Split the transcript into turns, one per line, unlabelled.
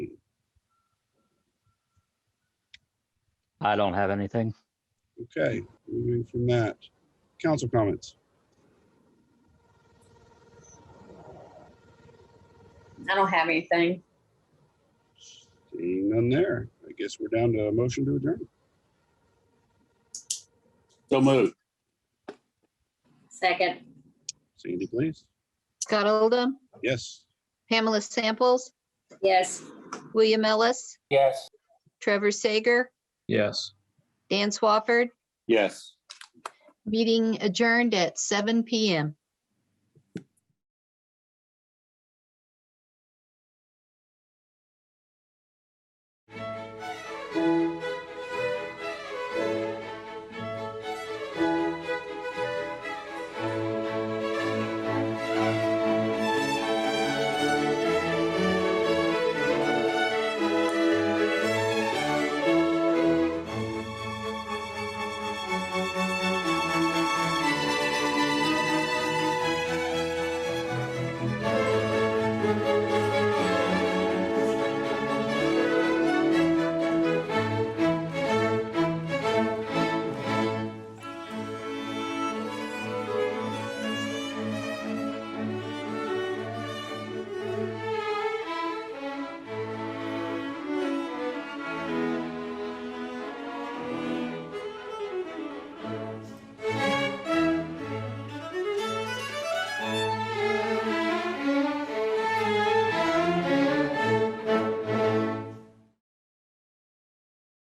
I don't have anything.
Okay, moving from that. Council comments.
I don't have anything.
Seeing none there. I guess we're down to a motion to adjourn.
So moved.
Second,
Sandy, please.
Scott Oldham,
Yes.
Pamela Samples,
yes.
William Ellis,
Yes.
Trevor Sager,
Yes.
Dan Swafford.
Yes.
Meeting adjourned at 7 PM.